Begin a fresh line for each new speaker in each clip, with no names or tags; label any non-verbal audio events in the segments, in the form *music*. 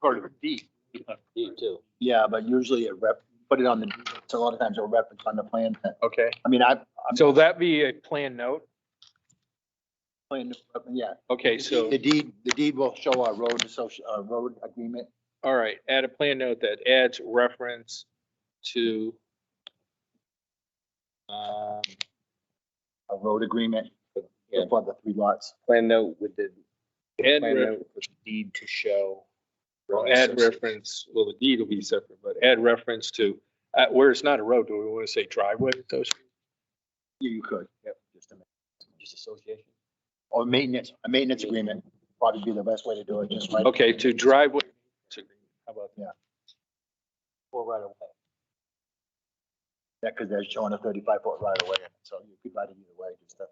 part of a deed.
D too.
Yeah, but usually it rep, put it on the, so a lot of times it'll reference on the plan.
Okay,
I mean, I, I'm
so that be a plan note.
playing, yeah.
Okay, so,
The deed, the deed will show our road associ, uh, road agreement.
all right, add a plan note that adds reference to
Um,
a road agreement
Yeah.
for the three lots.
plan note with the,
add,
plan
re-
note with deed to show.
well, add reference, well, the deed will be separate, but add reference to, uh, where it's not a road, do we want to say driveway? association?
You, you could. Yep. Just a minute.
Just association.
Or maintenance, a maintenance agreement probably be the best way to do it, just like.
Okay, to driveway. How about
Or right away.
Yeah, because they're showing a thirty-five foot right away, so you could write it either way, just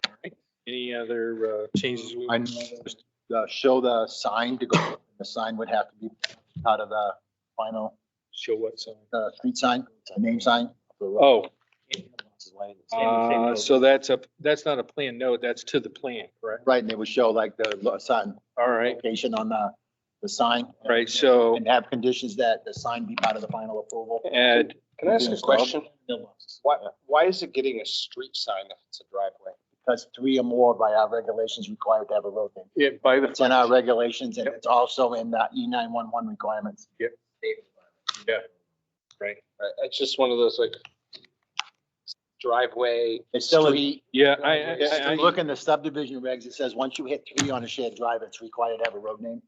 to.
any other uh, changes? we-
I know just, uh, show the sign to go, the sign would have to be part of the final,
Show what sign?
uh, street sign, name sign. for the road.
Oh, uh,
Uh,
so that's a, that's not a plan note, that's to the plan, correct?
Right, and it would show like the lo- sign
All right,
location on the, the sign.
right, so
And have conditions that the sign be part of the final approval.
add
Can I ask a question? Why, why is it getting a street sign if it's a driveway?
Because three or more by our regulations required to have a road name.
it by the.
It's in our regulations and it's also in the E nine one one requirements.
Right, It's just one of those like driveway.
It's still, in-
street,
Yeah, I, I-
Yeah,
if
I,
you
I,
look in the subdivision regs, it says once you hit three on a shared drive, it's required to have a road name.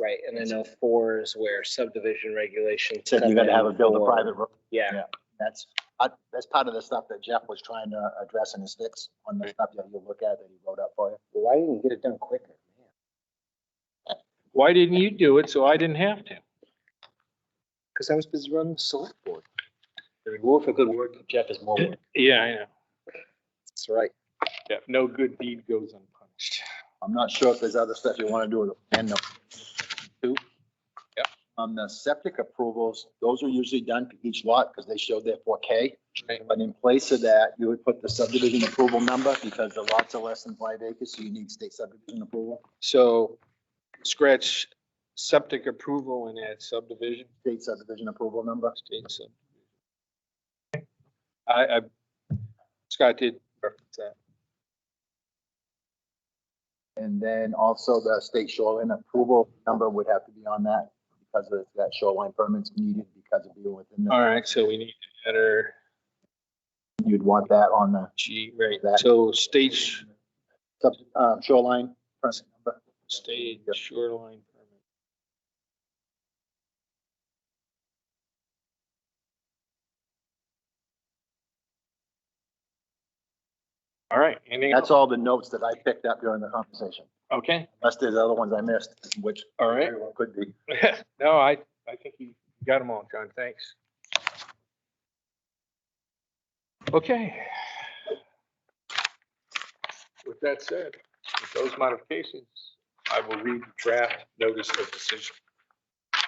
Right, and then oh four is where subdivision regulations.
Said you
come
gotta
in
have a build a
for-
private road.
Yeah,
That's, I- that's part of the stuff that Jeff was trying to address in his fix on the stuff that you look at that he wrote up for you.
Why didn't you get it done quicker?
why didn't you do it? So I didn't have to.
Because I was busy running the select board. The reward for good work, Jeff, is more work.
Yeah, I know.
That's right.
Yeah, no good deed goes unpunished.
I'm not sure if there's other stuff you want to do with the end Yep. On the septic approvals, those are usually done for each lot because they show their four K.
Right.
But in place of that, you would put the subdivision approval number because the lots are less than five acres, so you need state subdivision approval,
So scratch septic approval and add subdivision.
state subdivision approval number.
state sub- I, I, Scott did reference that.
And then also the state shoreline approval number would have to be on that because of that shoreline permits needed because of being within,
All
the-
right, so we need to add our
you'd want that on the
G, right,
That-
so stage,
sub- uh, shoreline permit number.
stage shoreline permit. All right, anything
That's
else?
all the notes that I picked up during the conversation,
Okay,
unless there's other ones I missed, which
all right.
very well could be.
*laughs* No, I, I think you got them all, John, thanks. Okay. With that said, with those modifications, I will read the draft notice of decision.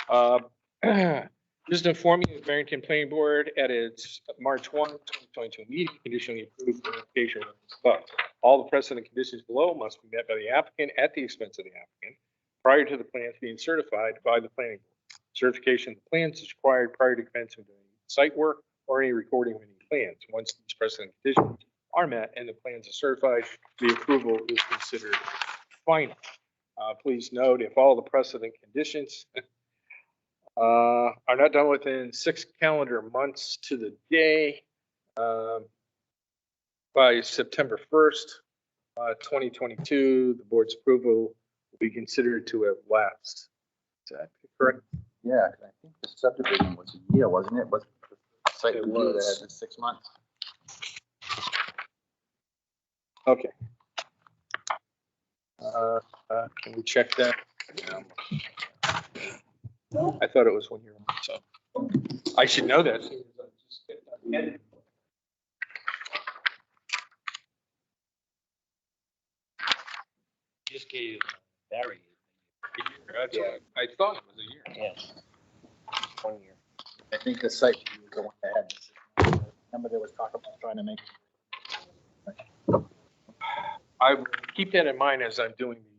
Uh, *clears throat* Just informing you, the Barrington Planning Board at its March 1, 2022 meeting conditionally approved the application. But all the precedent conditions below must be met by the applicant at the expense of the applicant prior to the plans being certified by the planning board. Certification of the plans is required prior to commencement of any site work or any recording of any plans. Once these precedent conditions are met and the plans are certified, the approval is considered final. Uh, please note, if all the precedent conditions *laughs* uh, are not done within six calendar months to the day, um, by September first, uh, twenty twenty-two, the board's approval be considered to have lapsed. Is that correct?
Yeah, 'cause I think the subdivision was a year, wasn't it? Was the site
It
review that
was.
had the six months?
Okay. Uh, uh, Can we check that? Um, I thought it was one year, so I should know that.
Just gave Barry.
That's what I I thought it was a year.
Yes. One year.
I think the site review was the one that had. the six months. Remember there was talk about trying to make,
I keep that in mind as I'm doing these